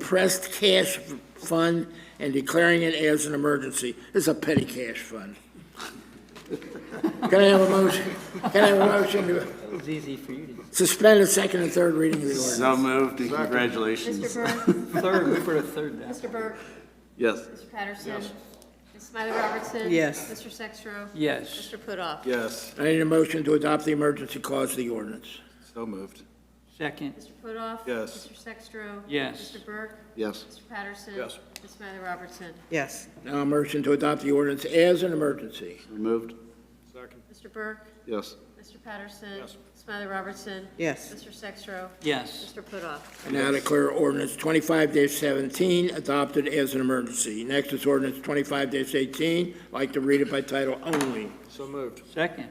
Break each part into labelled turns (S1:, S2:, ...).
S1: impressed cash fund and declaring it as an emergency. It's a petty cash fund. Can I have a motion? Can I have a motion to
S2: It was easy for you
S1: suspend the second and third reading of the ordinance?
S3: So moved, and congratulations.
S4: Mr. Burke,
S2: to. Third, we put a third down.
S4: Mr. Burke,
S3: Yes.
S4: Mr. Patterson, Ms. Smiley Robertson.
S2: Yes.
S4: Mr. Sextro.
S2: Yes,
S4: Mr. Putoff.
S3: Yes.
S1: I need a motion to adopt the emergency clause of the ordinance.
S3: So moved.
S2: second,
S4: Mr. Putoff.
S3: Yes.
S4: Mr. Sextro.
S2: Yes.
S4: Mr. Burke,
S3: Yes.
S4: Mr. Patterson.
S3: Yes.
S4: Ms. Smiley Robertson.
S5: yes,
S1: Now a motion to adopt the ordinance as an emergency.
S3: Moved.
S4: Mr. Burke,
S3: Yes.
S4: Mr. Patterson. Yes. Smiley Robertson.
S5: yes,
S4: Mr. Sextro.
S2: yes,
S4: Mr. Putoff.
S1: I now declare ordinance twenty-five seventeen adopted as an emergency. Next is ordinance twenty-five eighteen. I'd Like to read it by title only.
S3: So moved.
S2: second,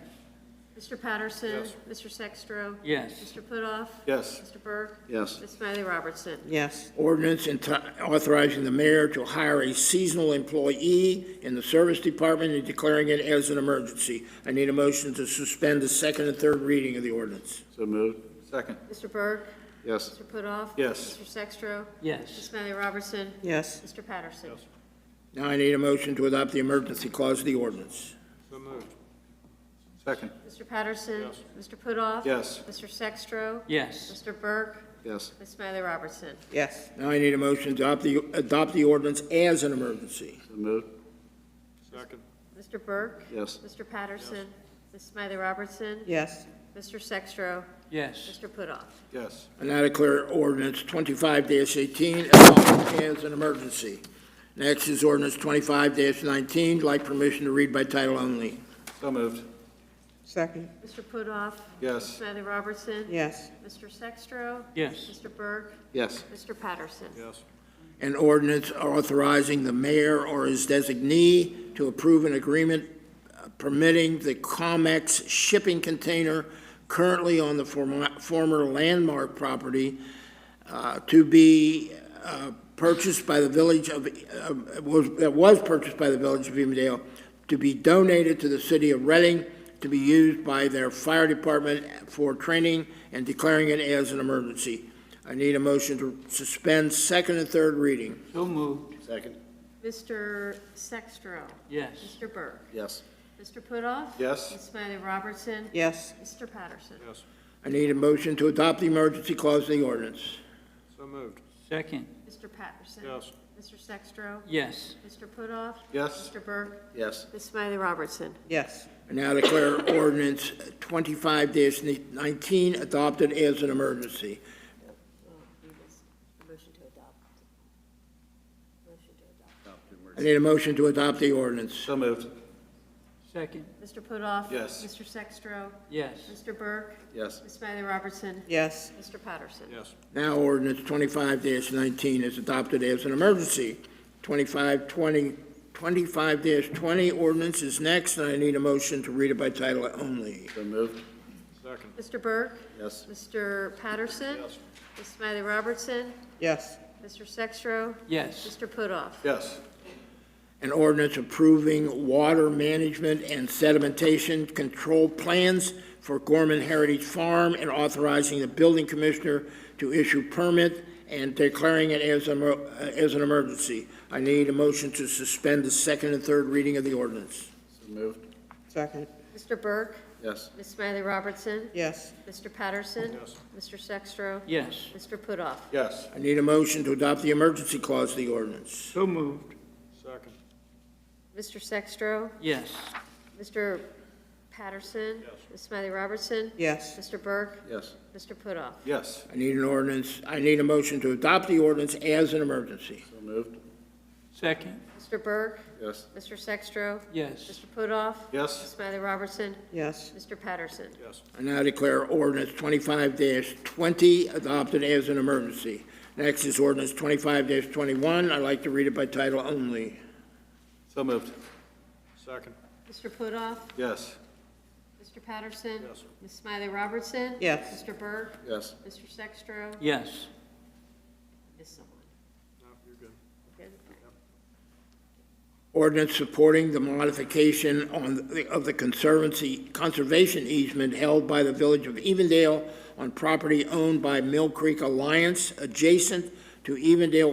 S4: Mr. Patterson.
S3: Yes.
S4: Mr. Sextro.
S2: yes,
S4: Mr. Putoff.
S3: Yes.
S4: Mr. Burke.
S3: Yes.
S4: Ms. Smiley Robertson.
S5: yes,
S1: Ordinance enti- authorizing the mayor to hire a seasonal employee in the service department and declaring it as an emergency. I need a motion to suspend the second and third reading of the ordinance.
S3: So moved. Second.
S4: Mr. Burke,
S3: Yes.
S4: Mr. Putoff.
S3: Yes.
S4: Mr. Sextro. Ms.
S2: yes,
S4: Smiley Robertson.
S5: yes,
S4: Mr. Patterson.
S1: Now I need a motion to adopt the emergency clause of the ordinance.
S3: So moved. Second.
S4: Mr. Patterson. Mr. Putoff.
S3: Yes.
S4: Mr. Sextro.
S2: yes,
S4: Mr. Burke.
S3: Yes.
S4: Ms. Smiley Robertson.
S5: yes,
S1: Now I need a motion to adopt the, adopt the ordinance as an emergency.
S3: So moved.
S4: Mr. Burke.
S3: Yes.
S4: Mr. Patterson. Ms. Smiley Robertson.
S5: yes,
S4: Mr. Sextro.
S2: yes,
S4: Mr. Putoff.
S3: Yes.
S1: I now declare ordinance twenty-five eighteen adopted as an emergency. Next is ordinance twenty-five nineteen. I'd Like permission to read by title only.
S3: So moved.
S5: second,
S4: Mr. Putoff. Ms.
S3: Yes.
S4: Smiley Robertson.
S5: yes,
S4: Mr. Sextro.
S2: yes,
S4: Mr. Burke.
S3: Yes.
S4: Mr. Patterson.
S3: Yes.
S1: An ordinance authorizing the mayor or his designee to approve an agreement uh, permitting the COMEX shipping container currently on the form- former landmark property uh, to be uh, purchased by the village of, uh, was- that was purchased by the village of Evendale, to be donated to the city of Reading, to be used by their fire department for training and declaring it as an emergency. I need a motion to suspend second and third reading.
S2: so moved,
S3: Second.
S4: Mr. Sextro.
S2: yes,
S4: Mr. Burke.
S3: Yes.
S4: Mr. Putoff.
S3: Yes.
S4: Ms. Smiley Robertson.
S5: yes,
S4: Mr. Patterson.
S1: I need a motion to adopt the emergency clause of the ordinance.
S3: So moved.
S2: second,
S4: Mr. Patterson.
S3: Yes.
S4: Mr. Sextro.
S2: yes,
S4: Mr. Putoff.
S3: Yes.
S4: Mr. Burke.
S3: Yes.
S4: Ms. Smiley Robertson.
S5: yes,
S1: I now declare ordinance twenty-five nineteen adopted as an emergency.
S4: Motion to adopt. Motion to
S1: I need a motion to adopt the ordinance.
S3: So moved.
S2: second,
S4: adopt. Mr. Putoff.
S3: Yes.
S4: Mr. Sextro.
S2: yes,
S4: Mr. Burke.
S3: Yes.
S4: Ms. Smiley Robertson.
S5: yes,
S4: Mr. Patterson.
S3: Yes.
S1: Now ordinance twenty-five nineteen is adopted as an emergency. Twenty-five twenty, twenty-five twenty ordinance is next, and I need a motion to read it by title only.
S3: So moved. Second.
S4: Mr. Burke.
S3: Yes.
S4: Mr. Patterson.
S3: Yes.
S4: Ms. Smiley Robertson.
S5: yes,
S4: Mr. Sextro.
S2: yes,
S4: Mr. Putoff.
S3: Yes.
S1: An ordinance approving water management and sedimentation control plans for Gorman Heritage Farm and authorizing the building commissioner to issue permit and declaring it as, a- as an emergency. I need a motion to suspend the second and third reading of the ordinance.
S3: So moved.
S5: second,
S4: Mr. Burke.
S3: Yes.
S4: Ms. Smiley Robertson.
S5: yes,
S4: Mr. Patterson.
S3: Yes.
S4: Mr. Sextro.
S2: yes,
S4: Mr. Putoff.
S3: Yes.
S1: I need a motion to adopt the emergency clause of the ordinance.
S2: so moved,
S3: Second.
S4: Mr. Sextro.
S2: yes,
S4: Mr. Patterson. Ms. Smiley Robertson.
S5: yes,
S4: Mr. Burke.
S3: Yes.
S4: Mr. Putoff.
S3: Yes.
S1: I need an ordinance, I need a motion to adopt the ordinance as an emergency.
S3: So moved.
S2: second,
S4: Mr. Burke.
S3: Yes.
S4: Mr. Sextro.
S2: yes,
S4: Mr. Putoff.
S3: Yes.
S4: Ms. Smiley Robertson.
S5: yes,
S4: Mr. Patterson.
S3: Yes.
S1: I now declare ordinance twenty-five twenty adopted as an emergency. Next is ordinance twenty-five twenty-one. I'd like to read it by title only.
S3: So moved. Second.
S4: Mr. Putoff.
S3: Yes.
S4: Mr. Patterson.
S3: Yes.
S4: Ms. Smiley Robertson.
S5: Yes.
S4: Mr. Burke.
S3: Yes.
S4: Mr. Sextro.
S2: yes,
S4: Missed someone.
S3: No, you're good.
S4: Good?
S1: Ordinance supporting the modification on, the- of the conservancy, conservation easement held by the village of Evendale on property owned by Mill Creek Alliance adjacent to Evendale